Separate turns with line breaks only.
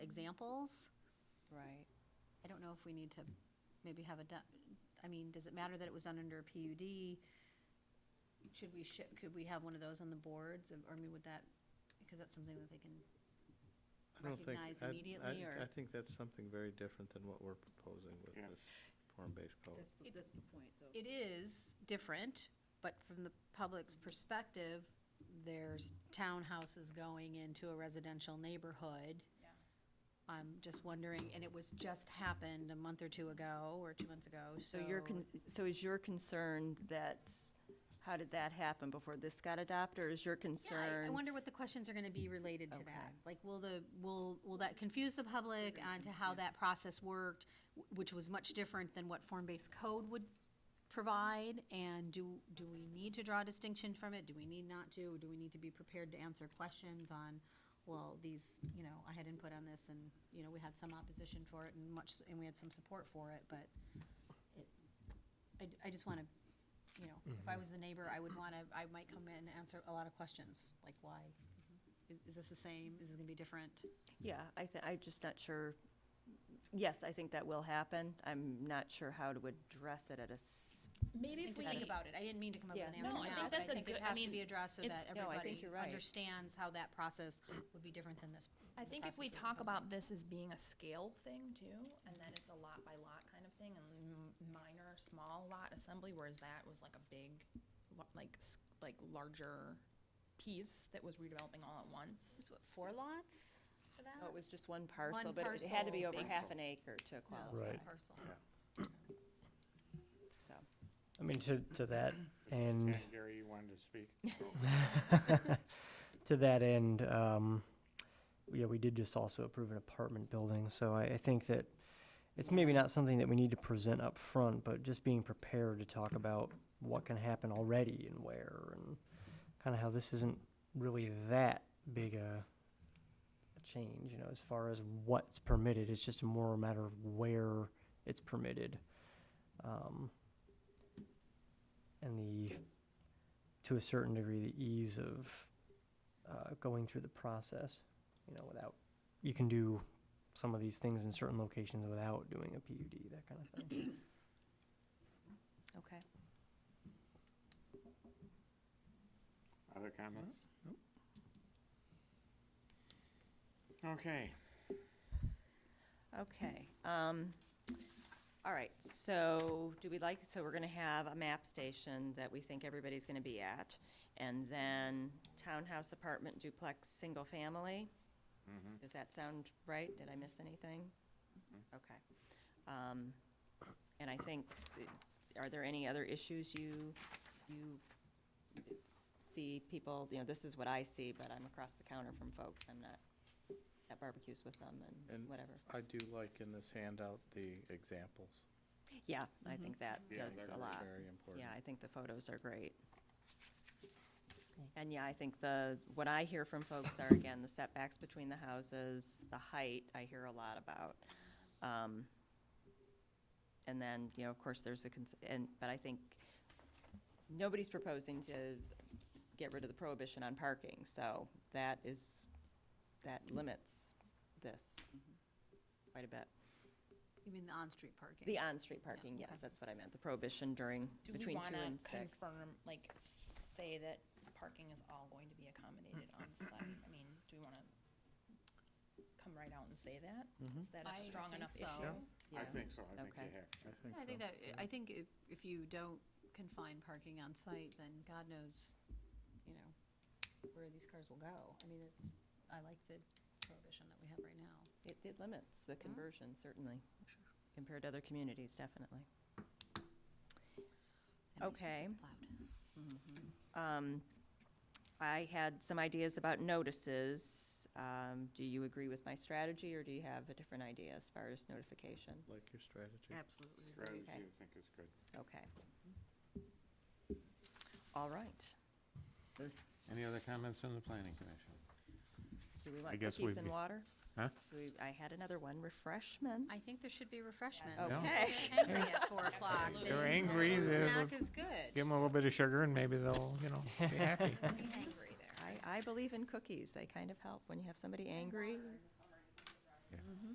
examples.
Right.
I don't know if we need to maybe have a, du- I mean, does it matter that it was done under a PUD? Should we, shi- could we have one of those on the boards, or I mean, would that, because that's something that they can,
I don't think-
recognize
I'd-
immediately,
I'd-
or-
I think that's something very different than what we're proposing with
Yeah.
this form-based code.
That's the, that's the point, though.
it is different, but from the public's perspective, there's townhouses going into a residential neighborhood.
Yeah.
I'm just wondering, and it was just happened a month or two ago, or two months ago, so.
So you're, con- so is your concern that, how did that happen before this got adopted, or is your
Yeah, I- I
concern?
wonder what the questions are gonna be related to that.
Okay.
Like, will the, will, will that confuse the public onto how that process worked, wh- which was much different than what form-based code would provide? And do, do we need to draw a distinction from it? Do we need not to? Or do we need to be prepared to answer questions on, well, these, you know, I had input on this and, you know, we had some opposition for it and much, and we had some support for it, but it, I, I just wanna you know, if I was the neighbor, I would want to, I might come in and answer a lot of questions, like why? Is, is this the same? Is this gonna be different?
Yeah, I thi- I'm just not sure. Yes, I think that will happen. I'm not sure how to address it at a, s-
Maybe
Need
if
to
we.
think about it. I didn't mean to come up with an
Yeah.
answer
No, I
now,
think
but I
that's a
think it
good- I
has to
mean,
be addressed so that
it's-
No, I think
everybody
you're right.
understands how that process would be different than this.
I think if we
process
talk
we're proposing.
about this as being a scale thing too, and then it's a lot by lot kind of thing, and m- minor, small lot assembly, whereas that was like a big, lo- like, s- like larger piece that was redeveloping all at once.
Is what, four lots for that?
oh, it was just one parcel,
One
but it had to be
parcel,
over
big
half an acre to
No,
qualify,
one
Right.
Parcel.
so.
I mean, to, to that
And
end,
Gary, you wanted to speak?
to that end, um, yeah, we did just also approve an apartment building, so I, I think that it's maybe not something that we need to present up front, but just being prepared to talk about what can happen already and where, and kind of how this isn't really that big a, a change, you know, as far as what's permitted. It's just a more a matter of where it's permitted, um, and the to a certain degree the ease of uh, going through the process, you know, without you can do some of these things in certain locations without doing a PUD, that kind of thing.
Okay.
Other comments? Okay,
Okay, um, all right, so do we like, so we're gonna have a map station that we think everybody's gonna be at, and then townhouse, apartment, duplex, single family? Does that sound right? Did I miss anything? Okay. Um, and I think, th- are there any other issues you, you see people, you know, this is what I see, but I'm across the counter from folks, I'm not at barbecues with them and
And
whatever.
I do like in this handout the examples.
Yeah, I think that
Yeah,
does
that
a
goes
lot.
Very important.
Yeah, I think the photos are great. And yeah, I think the, what I hear from folks are, again, the setbacks between the houses, the height, I hear a lot about. Um, And then, you know, of course, there's a, cons- and, but I think nobody's proposing to get rid of the prohibition on parking, so that is, that limits this quite a bit.
You mean the on-street parking?
The on-street parking, yes,
okay.
that's what I meant, the prohibition during,
Do we
between two
wanna
and six.
confirm, like, say that parking is all going to be accommodated on site? I mean, do we wanna come right out and say that? Is that
I
a strong
think
enough
so.
issue?
I
Yeah.
think so, I think you
Okay.
have to.
I think
I
so.
think that, I think if, if you don't confine parking on site, then God knows, you know, where these cars will go. I mean, it's, I like the prohibition that we have right now.
It, it limits the conversion, certainly, compared to other communities, definitely.
That makes me
Okay.
think it's loud.
Um, I had some ideas about notices. Um, Do you agree with my strategy, or do you have a different idea as far as notification?
Like your strategy.
Strategy, I think is good.
Okay. All right.
Any other comments from the planning commission?
Do we want
guess
cookies
we'd
and
be-
water?
Huh?
Do we- I had another one, refreshments.
I think there should be refreshments.
Yeah.
If they're Angry at four o'clock. then
They're angry, they're-
Snack is good.
Give them a little bit of sugar and maybe they'll, you know, be happy.
Pretty angry there.
I, I believe in cookies. They kind of help when you have somebody angry.